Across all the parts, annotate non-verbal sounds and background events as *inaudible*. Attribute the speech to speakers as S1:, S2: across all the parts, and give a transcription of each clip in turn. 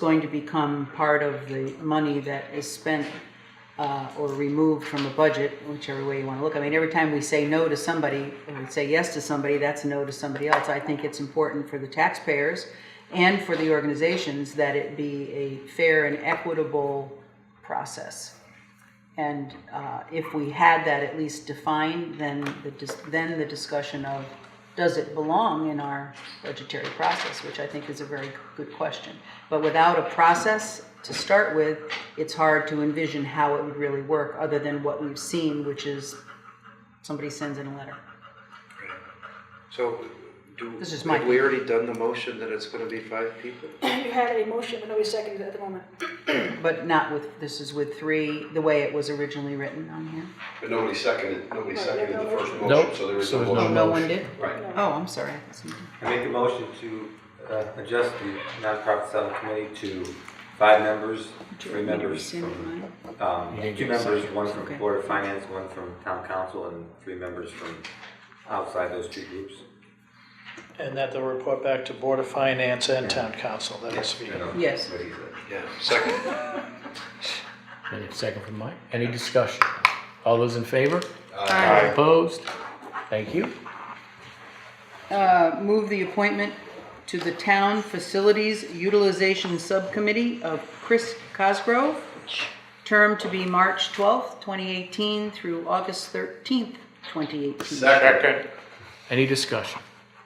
S1: going to become part of the money that is spent uh, or removed from a budget, whichever way you want to look. I mean, every time we say no to somebody, or we say yes to somebody, that's a no to somebody else. I think it's important for the taxpayers and for the organizations that it be a fair and equitable process. And uh, if we had that at least defined, then the, dis- then the discussion of, does it belong in our budgetary process, which I think is a very good question. But without a process to start with, it's hard to envision how it would really work, other than what we've seen, which is somebody sends in a letter.
S2: So, do,
S1: This is my
S2: have we already done the motion that it's gonna be five people?
S3: *clears throat* You had a motion, but nobody seconded it at the moment.
S1: But not with, this is with three, the way it was originally written on here.
S4: But nobody seconded, nobody
S3: Right,
S4: seconded
S3: no
S4: the first
S3: motion.
S4: motion,
S5: Nope,
S4: so there was
S5: so
S4: no
S5: there's no
S1: Oh,
S4: motion.
S1: no one did?
S4: Right.
S3: No.
S1: Oh, I'm sorry. I thought somebody-
S6: I make a motion to uh, adjust the nonprofit settlement committee to five members, three members
S1: Rescind
S6: from,
S1: mine.
S6: um,
S5: You didn't
S6: two
S5: get a
S6: members, one
S1: Okay.
S6: from Board of Finance, one from Town Council, and three members from outside those two groups.
S7: And that they'll report back to Board of Finance and Town Council, that has to be.
S6: You know,
S1: Yes.
S6: what he said.
S2: Yeah, second.
S5: And a second from Mike. Any discussion? All those in favor?
S1: Aye.
S5: Opposed? Thank you.
S1: Uh, Move the appointment to the Town Facilities Utilization Subcommittee of Chris Cosgrove, term to be March 12th, 2018 through August 13th, 2018.
S8: Second.
S5: Any discussion?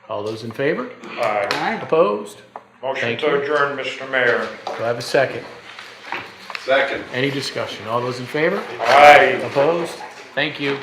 S5: All those in favor?
S8: Aye.
S1: Aye.
S5: Opposed?
S8: Motion
S5: Thank
S8: to
S5: you.
S8: adjourn, Mr. Mayor.
S5: Do I have a second?
S4: Second.
S5: Any discussion? All those in favor?
S8: Aye.
S5: Opposed? Thank you.